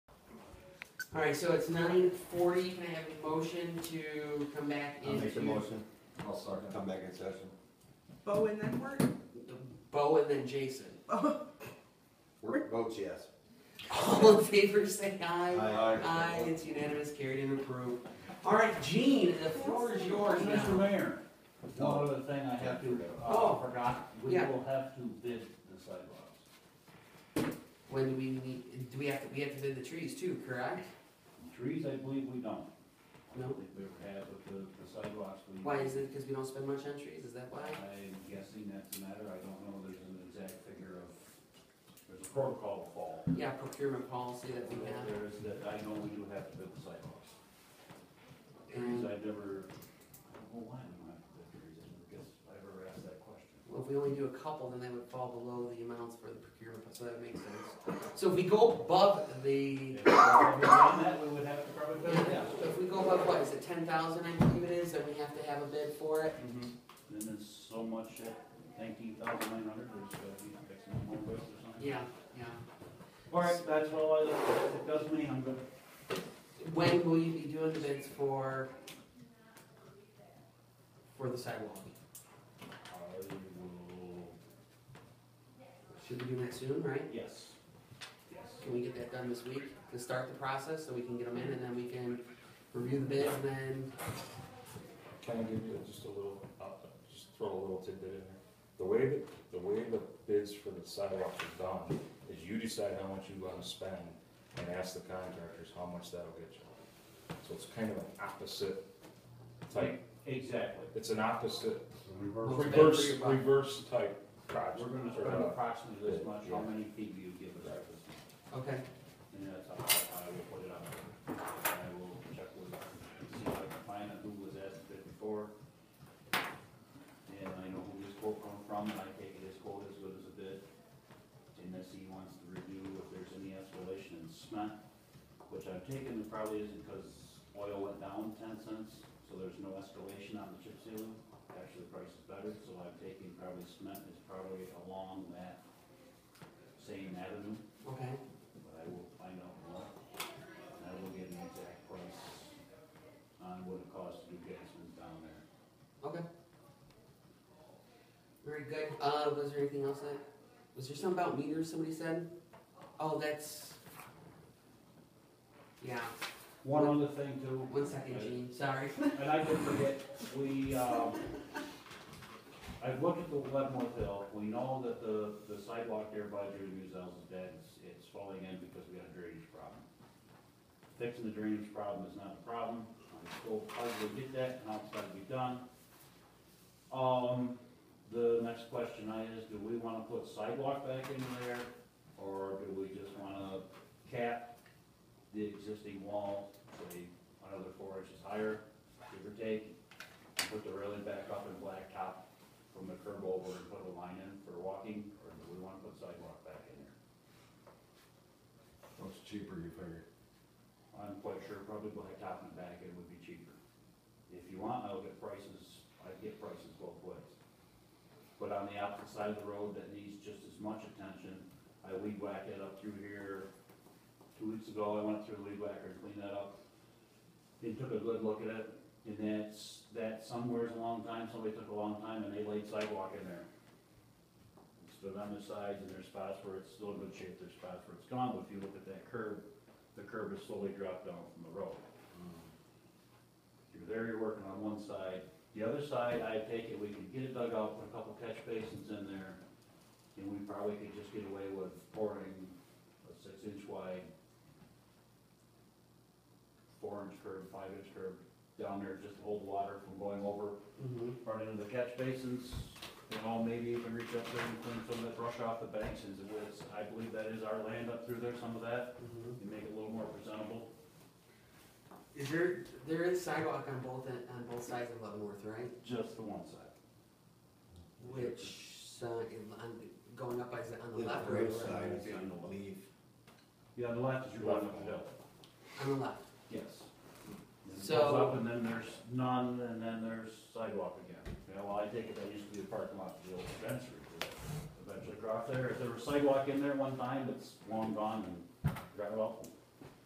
Alright, so it's nine forty, can I have a motion to come back I'll make the into motion, I'll second. come back in session. Bo and then work? Bo and then Jason? Work votes yes. All in favor, say aye. Aye. Aye, it's unanimous, carried and approved. Alright, Gene, the floor is yours Mr. now. Mayor, one other thing I have to, Oh. uh, forgot, we Yeah. will have to bid the sidewalks. When do we need, do we have to, we have to bid the trees too, correct? Trees, I believe we don't. I No. don't think we ever have, but the, the sidewalks we. Why is it, cause we don't spend much on trees, is that why? I'm guessing that's a matter, I don't know, there's an exact figure of, there's a protocol to follow. Yeah, procurement policy that we have. There is, that I know we do have to bid the sidewalks. Trees, And, I've never, I don't know why we don't have to bid trees, I never guess, I ever asked that question. well, if we only do a couple, then they would fall below the amounts for the procurement, so that makes sense. So if we go above the, If we had done that, we would have to probably bid it, yes. if we go above, what, is it ten thousand, I believe it is, then we have to have a bid for it? Mm-hmm. Then it's so much at nineteen thousand nine hundred, there's, uh, you know, fix some more bills or something. Yeah, yeah. All right, that's all I, if it does me, I'm good. When will you be doing the bids for, for the sidewalk? I will, Should we do that soon, right? yes, yes. Can we get that done this week to start the process so we can get them in and then we can review the bids and then, Can I give you just a little, uh, just throw a little tidbit in there? The way that, the way the bids for the sidewalks are done is you decide how much you wanna spend and ask the contractors how much that'll get you. So it's kind of an opposite type, Exactly. it's an opposite, Looks Reverse. bad for reverse, your buck. reverse type project. We're gonna or, spend uh, approximately this much, how Yeah. many feet do you give us at this time? okay. And that's how I will put it out. there. I will check with, see if I can find out who was asked it before. And I know who this quote come from, and I take it as quote as good as a bid. Unless he wants to review if there's any escalation in cement, which I've taken, it probably isn't because oil went down ten cents, so there's no escalation on the chip sealing. Actually, the price is better, so I've taken probably cement is probably along that same avenue Okay, but I will find out more. And I will get an exact price on what it costs to do basements down there. okay. Very good. Uh, was there anything else that, was there something about meters somebody said? Oh, that's, yeah, One other thing too. one second, Gene, sorry. And I did forget, we, um, I've looked at the Leavenworth Hill, we know that the, the sidewalk there by Judy Muzel's is dead, it's, it's falling in because we got a drainage problem. Fixing the drainage problem is not a problem, I'm still puzzled to get that, and outside to be done. Um, the next question I is, do we wanna put sidewalk back in there, or do we just wanna cap the existing wall, say, another four inches higher? give or take, and put the railing back up and blacktop from the curb over and put a line in for walking, or do we wanna put sidewalk back in there? What's cheaper, you figure? I'm quite sure probably blacktop and back end would be cheaper. If you want, I'll get prices, I'd get prices both ways. But on the opposite side of the road that needs just as much attention, I weed whacked it up through here. Two weeks ago, I went through the weed whacker and cleaned that up. And took a good look at it, and that's, that somewhere's a long time, somebody took a long time and they laid sidewalk in there. It's been on the sides and there's spots where it's still in good shape, there's spots where it's gone, but if you look at that curb, the curb has slowly dropped down from the road. Mm. You're there, you're working on one side, the other side, I take it, we could get it dug out, put a couple catch basins in there, and we probably could just get away with pouring a six inch wide, four inch curb, five inch curb down there just to hold water from going over, Mhm. run into the catch basins, and all maybe even reach up there and clean some of that brush off the banks, and it was, I believe that is our land up through there, some of that, Mm-hmm. Mhm. and make it a little more presentable. Is there, there is sidewalk on both, en- on both sides of Leavenworth, right? Just the one side. Which, uh, in- on, going up by, the- on the Live left or right the right? side, Be on the left. leave. Yeah, on the left is your left of the hill. On the left. Yes. And it So- goes up and then there's none, and then there's sidewalk again. Yeah, well, I take it that used to be the parking lot for the old dispensary. but Eventually got there, if there was sidewalk in there one time, it's long gone and gravel.